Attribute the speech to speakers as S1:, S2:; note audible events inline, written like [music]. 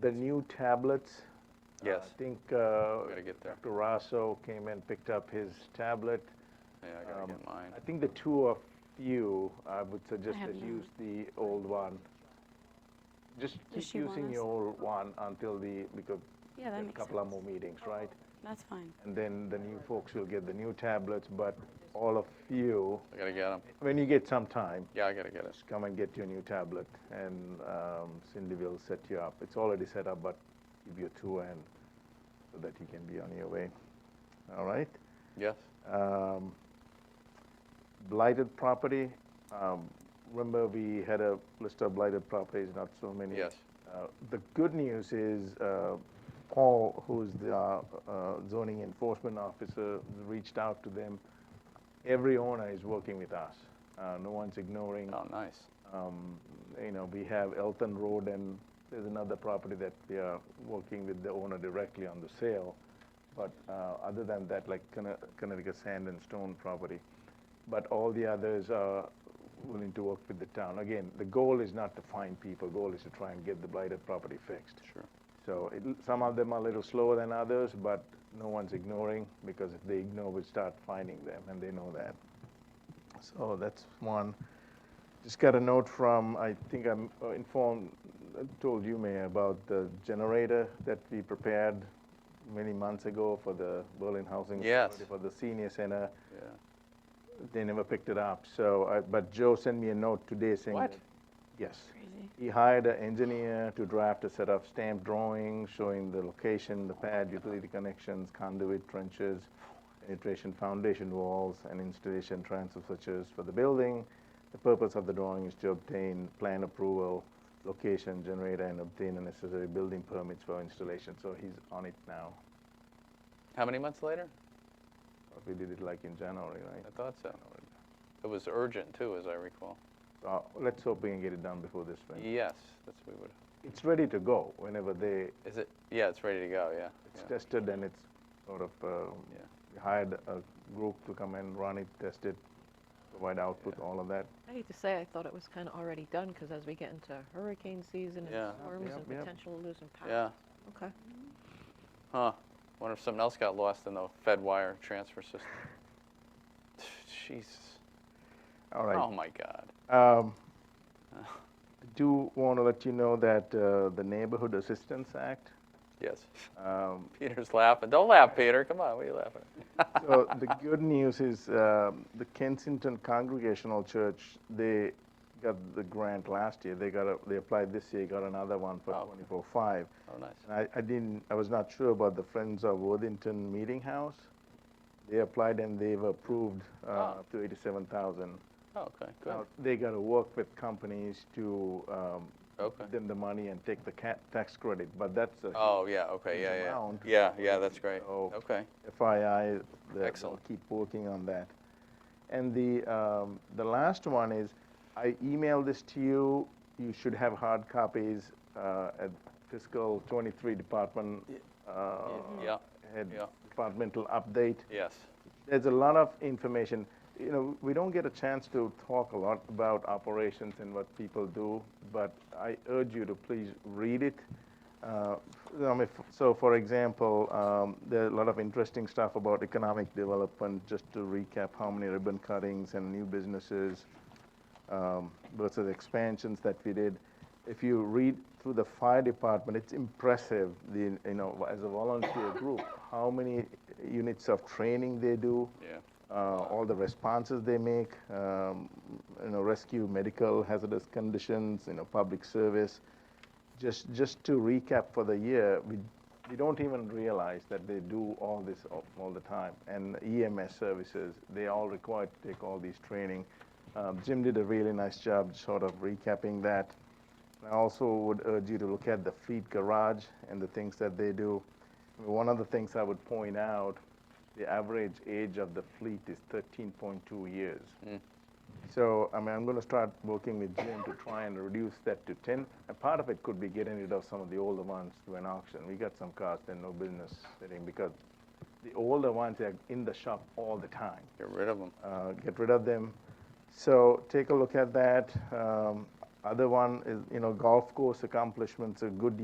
S1: the new tablets.
S2: Yes.
S1: I think uh,
S2: Gotta get there.
S1: Dr. Rosso came and picked up his tablet.
S2: Yeah, I gotta
S1: Um,
S2: get mine.
S1: I think the two of you, I would suggest
S3: have
S1: that
S3: none.
S1: use the old one. Just keep
S3: Does she want
S1: using
S3: us-
S1: your old one until the, because
S3: Yeah, that
S1: there's a
S3: makes
S1: couple of
S3: sense.
S1: more meetings, right?
S3: That's fine.
S1: And then the new folks will get the new tablets, but all of you,
S2: I gotta get them.
S1: when you get some time,
S2: Yeah, I gotta get it.
S1: just come and get your new tablet, and um, Cindy will set you up. It's already set up, but give you two and so that you can be on your way. All right.
S2: Yes?
S1: Um, blighted property. Um, remember, we had a list of blighted properties, not so many.
S2: Yes.
S1: Uh, the good news is uh, Paul, who's the uh, uh, zoning enforcement officer, reached out to them. Every owner is working with us. Uh, no one's ignoring
S2: Oh, nice.
S1: um, you know, we have Elton Road and there's another property that we are working with the owner directly on the sale. But uh, other than that, like Conne- Connecticut Sand and Stone property. But all the others are willing to work with the town. Again, the goal is not to find people, goal is to try and get the blighted property fixed.
S2: Sure.
S1: So it, some of them are a little slower than others, but no one's ignoring because if they ignore, we start finding them, and they know that. So that's one. Just got a note from, I think I'm uh, informed, uh, told you, Mayor, about the generator that we prepared many months ago for the Berlin Housing
S2: Yes.
S1: Authority for the senior center.
S2: Yeah.
S1: They never picked it up. So, I, but Joe sent me a note today saying.
S2: What?
S1: that- Yes.
S3: Crazy.
S1: He hired an engineer to draft a set of stamped drawings showing the location, the pad, utility connections, conduit trenches, penetration foundation walls, and installation transfer switches for the building. The purpose of the drawing is to obtain plan approval, location, generator, and obtain the necessary building permits for installation. So he's on it now.
S2: How many months later?
S1: We did it like in January, right?
S2: I thought so. It was urgent too, as I recall.
S1: Uh, let's hope we can get it done before this spring.
S2: Yes, that's what we would.
S1: It's ready to go whenever they,
S2: Is it? Yeah, it's ready to go. Yeah.
S1: it's
S2: yeah.
S1: tested and it's sort of, uh,
S2: yeah.
S1: We hired a group to come and run it, test it, provide output, all of that.
S4: I hate to say, I thought it was kind of already done, because as we get into hurricane season
S2: Yeah.
S4: and storms
S1: Yep,
S4: and
S1: yep.
S4: potential losing power.
S2: Yeah.
S4: Okay.
S2: Huh. Wonder if something else got lost in the Fed wire transfer system. [sighs] Jesus.
S1: All
S2: Oh
S1: right.
S2: my God.
S1: Um,
S2: Uh.
S1: I do want to let you know that uh, the Neighborhood Assistance Act,
S2: Yes. [laughs]
S1: um,
S2: Peter's laughing. Don't laugh, Peter. Come on. What are you laughing? at? [laughs]
S1: so the good news is um, the Kensington Congregational Church, they got the grant last year. They got a, they applied this year, got another one for
S2: Oh, okay.
S1: 24/5.
S2: Oh, nice.
S1: And I, I didn't, I was not sure about the Friends of Worthington Meeting House. They applied and they've approved uh,
S2: Ah.
S1: up to 87,000.
S2: Oh, okay. Good.
S1: Now, They got to work with companies to um,
S2: Okay.
S1: give them the money and take the ca- tax credit, but that's a
S2: Oh, yeah. Okay.
S1: Huge
S2: Yeah. Yeah.
S1: amount.
S2: Yeah. Yeah. That's great.
S1: So-
S2: Okay.
S1: FII. that They'll
S2: Excellent.
S1: keep working on that. And the, um, the last one is, I emailed this to you. You should have hard copies uh, at fiscal 23 department. uh,
S2: Yeah.
S1: head
S2: Yeah.
S1: Departmental update.
S2: Yes.
S1: There's a lot of information. You know, we don't get a chance to talk a lot about operations and what people do, but I urge you to please read it. Uh, I mean, f- so, for example, um, there are a lot of interesting stuff about economic development. Just to recap, how many ribbon cuttings and new businesses um, versus expansions that we did. If you read through the fire department, it's impressive, the, you know, as a volunteer group, how many units of training they do,
S2: Yeah.
S1: uh, all the responses they make, um, you know, rescue medical hazardous conditions, you know, public service. Just, just to recap for the year, we, we don't even realize that they do all this all, all the time. And EMS services, they all require to take all these training. Um, Jim did a really nice job sort of recapping that. I also would urge you to look at the fleet garage and the things that they do. One of the things I would point out, the average age of the fleet is 13.2 years. So, I mean, I'm going to start working with Jim to try and reduce that to 10. A part of it could be getting rid of some of the older ones to an auction. We got some cars that no business sitting because the older ones are in the shop all the time
S2: Get rid of them.
S1: uh, get rid of them. So take a look at that. Um, Other one is, you know, golf course accomplishments, a good